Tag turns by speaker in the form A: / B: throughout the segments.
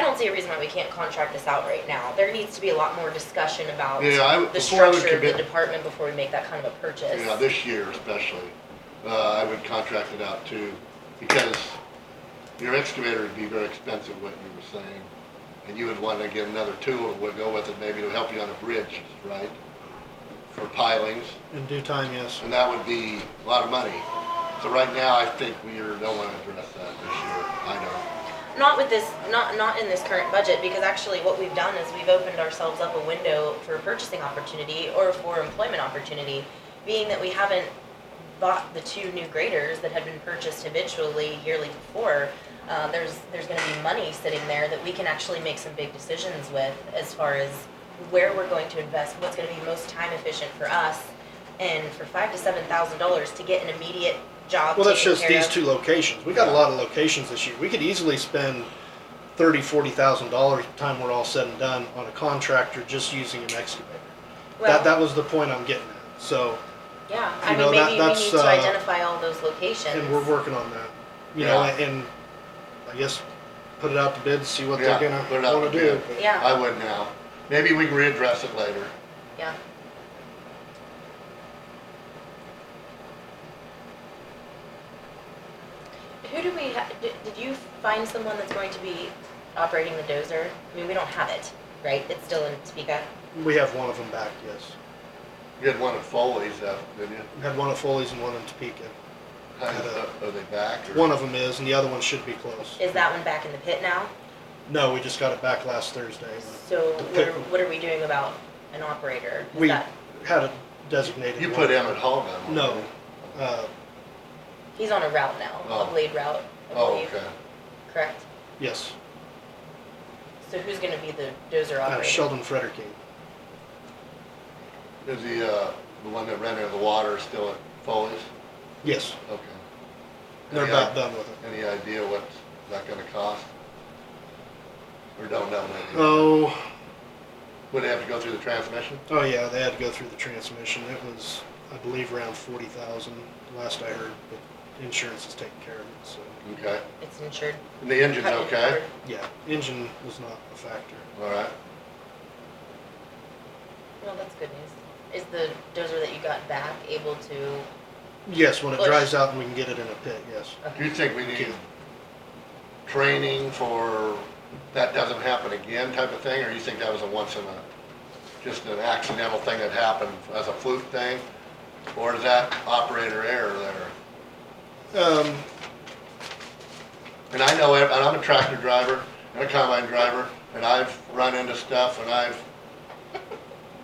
A: don't see a reason why we can't contract this out right now. There needs to be a lot more discussion about
B: Yeah, I would-
A: the
B: before I would
A: structure of the
B: commit-
A: department before we make that kind of a purchase.
B: Yeah, this year especially, uh, I would contract it out too, because your excavator would be very expensive, what you were saying. And you would want to get another tool that would go with it, maybe to help you on a bridge, right? For pilings,
C: In due time, yes.
B: and that would be a lot of money. So right now, I think we are- don't want to address that this year, I don't.
A: Not with this, not, not in this current budget, because actually what we've done is we've opened ourselves up a window for purchasing opportunity or for employment opportunity, being that we haven't bought the two new graders that had been purchased habitually yearly before. Uh, there's, there's gonna be money sitting there that we can actually make some big decisions with as far as where we're going to invest, what's gonna be most time efficient for us. And for five to seven thousand dollars to get an immediate job
C: Well, that's
A: taken
C: just
A: care
C: these
A: of.
C: two locations. We got a lot of locations this year. We could easily spend thirty, forty thousand dollars by the time we're all said and done on a contractor just using an excavator.
A: Well-
C: That, that was the point I'm getting at. So,
A: Yeah,
C: You
A: I
C: know,
A: mean,
C: that-
A: maybe we
C: that's,
A: need to
C: uh,
A: identify all those locations.
C: and we're working on that. You know,
B: Yeah.
C: and I guess put it out to bid, see what they're
B: Yeah,
C: gonna
B: put it out
C: wanna
B: to
C: do.
B: bid.
C: but-
A: Yeah.
B: I would now. Maybe we can readdress it later.
A: Yeah, who do we, ha- did, did you find someone that's going to be operating the dozer? I mean, we don't have it, right? It's still in Topeka.
C: We have one of them back, yes.
B: You had one at Foley's, uh, didn't you?
C: We had one at Foley's and one in Topeka.
B: How's that- Are they back? or-
C: One of them is, and the other one should be close.
A: Is that one back in the pit now?
C: No, we just got it back last Thursday.
A: So what are,
C: pit.
A: what are we doing about an operator? Is
C: We
A: that-
C: had it designated.
B: You
C: one.
B: put Emmett Hall down.
C: No, uh,
A: He's on a route now, a
B: Oh.
A: blade route, I
B: Oh,
A: believe,
B: okay.
A: correct?
C: yes,
A: So who's gonna be the dozer
C: uh,
A: operator?
C: Sheldon Fredericking.
B: Is the, uh, the one that ran out of the water still at Foley's?
C: Yes,
B: Okay.
C: they're
B: Any
C: about
B: i-
C: done with it.
B: Any idea what that gonna cost? Or don't know maybe?
C: Oh,
B: Would they have to go through the transmission?
C: oh yeah, they had to go through the transmission. It was, I believe, around forty thousand, last I heard, but insurance is taking care of it, so.
B: Okay.
A: It's insured.
B: And the engine's
A: Cut and
B: okay?
A: covered.
C: Yeah, engine was not a factor.
B: All right.
A: Well, that's good news. Is the dozer that you got back able to,
C: Yes, when it
A: Push.
C: dries out and we can get it in a pit, yes.
B: Do you think we need training for that doesn't happen again type of thing? Or you think that was a once in a, just an accidental thing that happened as a fluke thing? Or is that operator error there?
C: Um,
B: And I know, ev- and I'm a tractor driver, and a combine driver, and I've run into stuff, and I've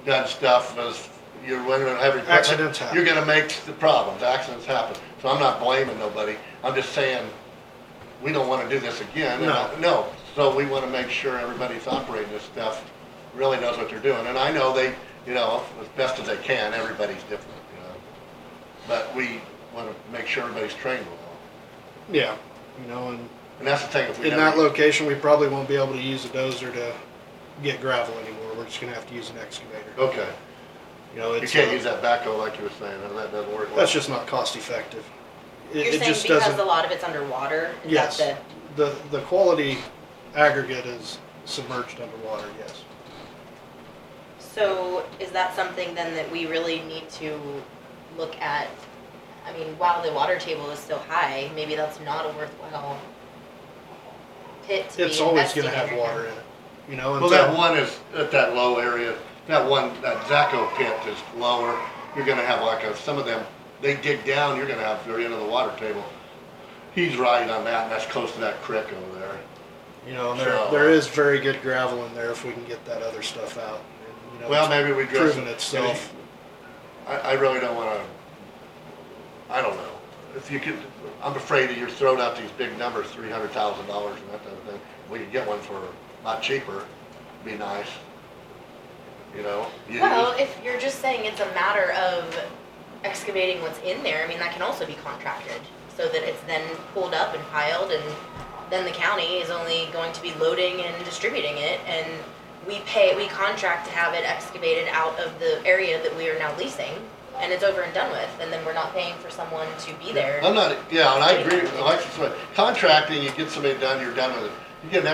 B: done stuff as, you're running on heavy equipment.
C: Accidents happen.
B: You're gonna make the problems, accidents happen, so I'm not blaming nobody, I'm just saying, we don't wanna do this again. and I-
C: No.
B: No, so we wanna make sure everybody's operating this stuff, really knows what they're doing, and I know they, you know, as best as they can, everybody's different, you know? But we wanna make sure everybody's trained well,
C: yeah, you know, and
B: and that's the thing, if
C: in
B: we
C: that
B: never.
C: location, we probably won't be able to use a dozer to get gravel anymore. We're just gonna have to use an excavator.
B: Okay,
C: You know,
B: you
C: it's.
B: can't
C: uh,
B: use that backhoe like you were saying, and that doesn't work. well.
C: That's just not cost effective. It,
A: You're
C: it
A: saying
C: just
A: because a
C: doesn't.
A: lot of it's underwater? Is
C: Yes,
A: that
C: the the quality aggregate is submerged underwater. Yes.
A: the- So is that something then that we really need to look at? I mean, while the water table is so high, maybe that's not a worthwhile pit to be
C: It's always going to
A: investing
C: have
A: in right
C: water
A: now.
C: in it. You know.
B: Well, that
C: until-
B: one is at that low area, that one, that Zaco pit is lower, you're gonna have like a, some of them, they dig down, you're gonna have very end of the water table. He's right on that, and that's close to that creek over there.
C: You know, and there
B: So-
C: there is very good gravel in there if we can get that other stuff out. And, you know,
B: Well,
C: it's
B: maybe we dress.
C: proven itself.
B: I, I really don't wanna, I don't know. If you could, I'm afraid that you're throwing out these big numbers, three hundred thousand dollars and that type of thing. We could get one for a lot cheaper, be nice. You know? used.
A: Well, if you're just saying it's a matter of excavating what's in there, I mean, that can also be contracted, so that it's then pulled up and piled, and then the county is only going to be loading and distributing it, and we pay, we contract to have it excavated out of the area that we are now leasing, and it's over and done with, and then we're not paying for someone to be there.
B: I'm not, yeah, and I agree, with Alexis, but contracting, you get somebody done, you're done with it. You get an